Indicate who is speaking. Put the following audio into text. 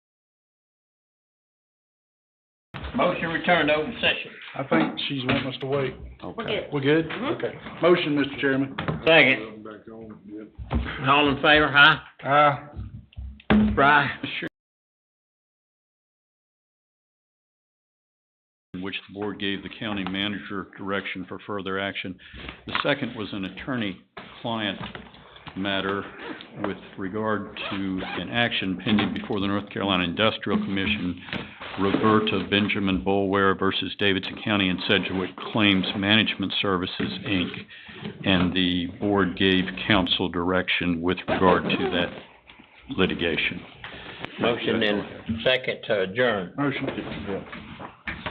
Speaker 1: Motion return to open session.
Speaker 2: I think she's wanting us to wait.
Speaker 3: We're good.
Speaker 2: We're good?
Speaker 3: Mhm.
Speaker 2: Okay. Motion, Mr. Chairman.
Speaker 1: Second. All in favor, huh?
Speaker 2: Aye.
Speaker 1: Bry?
Speaker 4: in which the board gave the county manager direction for further action. The second was an attorney-client matter with regard to an action pending before the North Carolina Industrial Commission, Roberta Benjamin Bolware versus Davidson County and Sedgwick Claims Management Services, Inc. And the board gave council direction with regard to that litigation.
Speaker 1: Motion and second to adjourn.
Speaker 2: Motion.